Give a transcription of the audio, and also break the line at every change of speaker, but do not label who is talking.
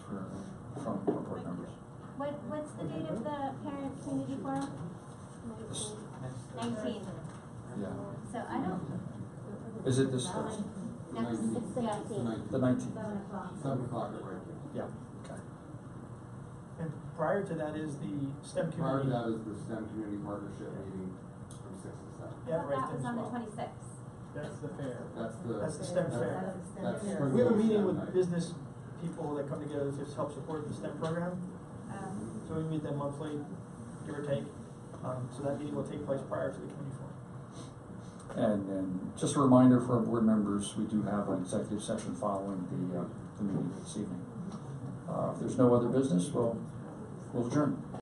What, what's the date of the parent community forum? Nineteen,
Yeah.
so I don't,
Is it this Thursday?
next,
It's the
yeah,
nineteenth,
The nineteenth?
seven o'clock.
seven o'clock at White Cave.
Yeah, okay.
And prior to that is the STEM
Prior
community.
to that is the STEM Community Partnership meeting from six to seven.
Yeah,
But
right
that was
then as
on the
well.
twenty-sixth.
That's the fair.
That's the.
That's the STEM fair.
That's.
We have a
Springfield
meeting
STEM
with
night.
business people that come together to help support the STEM program,
Um,
so we meet them monthly, give or take. Um, so that meeting will take place prior to the community forum.
And then, just a reminder for our board members, we do have an executive session following the, uh, the meeting this evening. Uh, if there's no other business, we'll, we'll adjourn.